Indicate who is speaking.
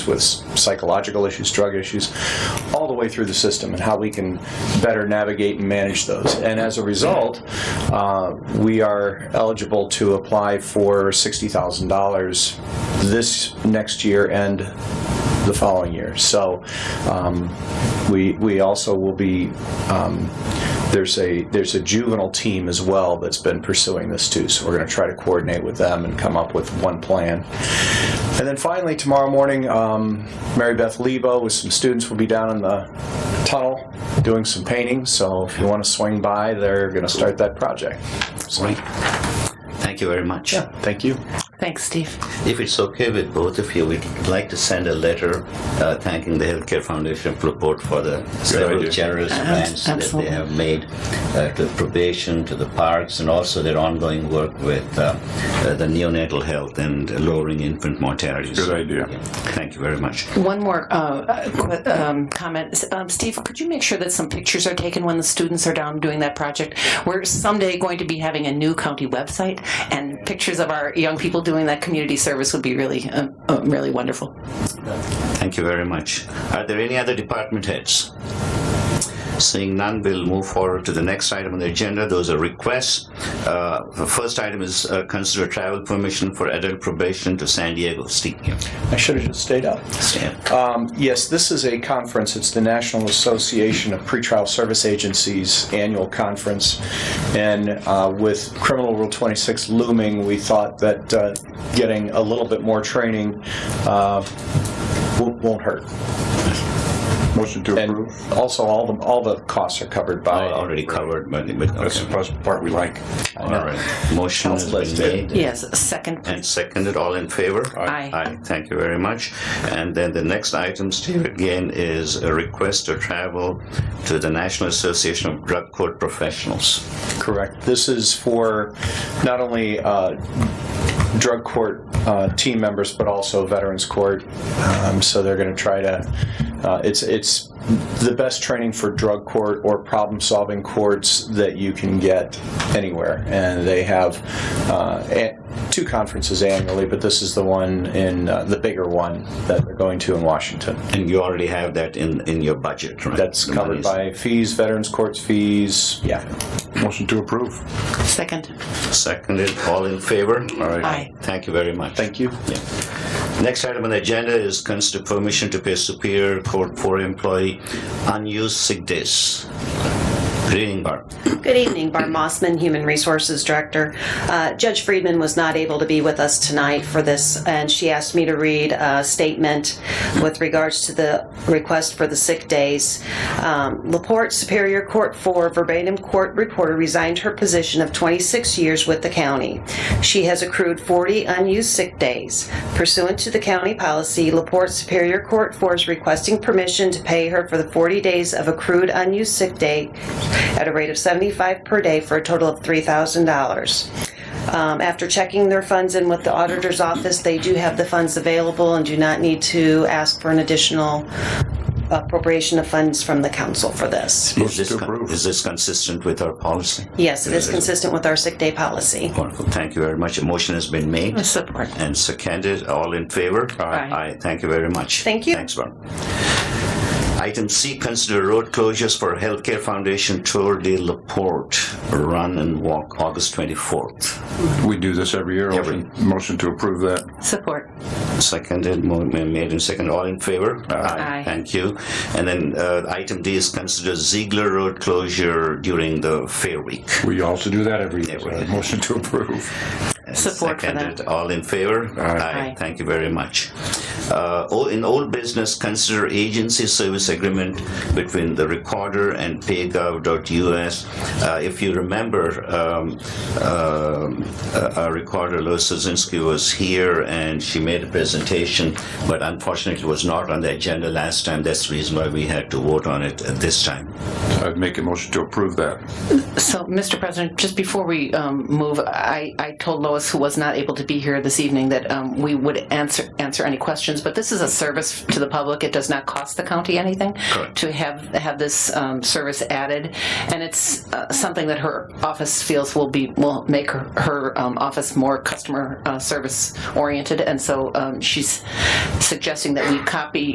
Speaker 1: with psychological issues, drug issues, all the way through the system, and how we can better navigate and manage those. And as a result, uh, we are eligible to apply for $60,000 this next year and the following year. So um, we, we also will be, um, there's a, there's a juvenile team as well that's been pursuing this too. So we're going to try to coordinate with them and come up with one plan. And then finally, tomorrow morning, um, Mary Beth Lebo with some students will be down in the tunnel doing some painting. So if you want to swing by, they're going to start that project. So,
Speaker 2: Right. Thank you very much.
Speaker 1: yeah, thank you.
Speaker 3: Thanks, Steve.
Speaker 2: If it's okay with both of you, we'd like to send a letter uh, thanking the Healthcare Foundation for support for the several generous grants that they
Speaker 3: absolutely.
Speaker 2: have made uh, to probation, to the parks, and also their ongoing work with uh, uh, the neonatal health and lowering infant mortality. Good idea. Thank you very much.
Speaker 3: One more uh, uh, qu- um, comment. S- Um, Steve, could you make sure that some pictures are taken when the students are down doing that project? We're someday going to be having a new county website, and pictures of our young people doing that community service would be really, um, um, really wonderful.
Speaker 2: Thank you very much. Are there any other department heads? Seeing none, we'll move forward to the next item on the agenda. Those are requests. Uh, the first item is uh, consider travel permission for adult probation to San Diego. Steve. yeah.
Speaker 1: I should have just stayed up.
Speaker 2: Stan.
Speaker 1: Um, Yes, this is a conference. It's the National Association of Pretrial Service Agencies annual conference. And uh, with Criminal Rule 26 looming, we thought that uh, getting a little bit more training uh, wo- won't hurt.
Speaker 4: Motion to
Speaker 1: And
Speaker 4: approve.
Speaker 1: also, all the, all the costs are covered by.
Speaker 2: Already covered, but, but
Speaker 4: That's the
Speaker 2: okay.
Speaker 4: part- part we like.
Speaker 2: All right. Motion has been made.
Speaker 3: Yes, second.
Speaker 2: And seconded, all in favor?
Speaker 3: Aye.
Speaker 2: Aye, thank you very much. And then the next item, Steve, again, is a request to travel to the National Association of Drug Court Professionals.
Speaker 1: Correct. This is for not only uh, drug court uh, team members, but also veterans court. Um, so they're going to try to. Uh, it's it's the best training for drug court or problem solving courts that you can get anywhere, and they have uh, a- two conferences annually, but this is the one in uh, the bigger one that they're going to in Washington.
Speaker 2: And you already have that in, in your budget, right?
Speaker 1: That's
Speaker 2: The
Speaker 1: covered
Speaker 2: monies.
Speaker 1: by fees, veterans courts fees. Yeah.
Speaker 4: Motion to approve.
Speaker 3: Second.
Speaker 2: Seconded, all in favor?
Speaker 3: Aye.
Speaker 2: Thank you very much.
Speaker 1: Thank you.
Speaker 2: Next item on the agenda is consider permission to pay Superior Court for employee unused sick days. Good evening, Barb.
Speaker 5: Good evening, Barb Mossman, Human Resources Director. Uh, Judge Friedman was not able to be with us tonight for this, and she asked me to read a statement with regards to the request for the sick days. Um, Laporte Superior Court 4 verbatim court reporter resigned her position of 26 years with the county. She has accrued 40 unused sick days. Pursuant to the county policy, Laporte Superior Court 4 is requesting permission to pay her for the 40 days of accrued unused sick day at a rate of 75 per day for a total of $3,000. Um, After checking their funds in with the auditor's office, they do have the funds available and do not need to ask for an additional appropriation of funds from the council for this.
Speaker 2: Is this,
Speaker 4: to
Speaker 2: con-
Speaker 4: approve.
Speaker 2: is this consistent with our policy?
Speaker 5: Yes, it is consistent with our sick day policy.
Speaker 2: Wonderful, thank you very much. A motion has been made
Speaker 3: Support.
Speaker 2: and seconded, all in favor?
Speaker 3: Aye.
Speaker 2: Aye, thank you very much.
Speaker 5: Thank you.
Speaker 2: Thanks, Barb. Item C, consider road closures for Healthcare Foundation Tour de La Porte, run and walk August 24th.
Speaker 4: We do this every year.
Speaker 2: Every-
Speaker 4: Motion to approve that.
Speaker 3: Support.
Speaker 2: Seconded, mo- ma- made and seconded, all in favor?
Speaker 3: Aye.
Speaker 2: Thank you. And then uh, item D is consider Ziegler Road closure during the Fair Week.
Speaker 4: We also do that every year.
Speaker 2: Every year.
Speaker 4: Motion to approve.
Speaker 3: Support for that.
Speaker 2: Seconded. All in favor?
Speaker 3: Aye.
Speaker 2: Thank you very much. Uh, o- In old business, consider agency service agreement between the recorder and paygov.us. Uh, If you remember, um, um, uh, our recorder, Lois Sosinski, was here and she made a presentation, but unfortunately was not on the agenda last time. That's the reason why we had to vote on it uh, this time.
Speaker 4: I'd make a motion to approve that.
Speaker 3: So, Mr. President, just before we um, move, I I told Lois, who was not able to be here this evening, that um, we would answer answer any questions questions, but this is a service to the public. It does not cost the county anything
Speaker 2: Correct.
Speaker 3: to have have this um, service added, and it's uh, something that her office feels will be will make her, her um, office more customer uh, service oriented, and so um, she's suggesting that we copy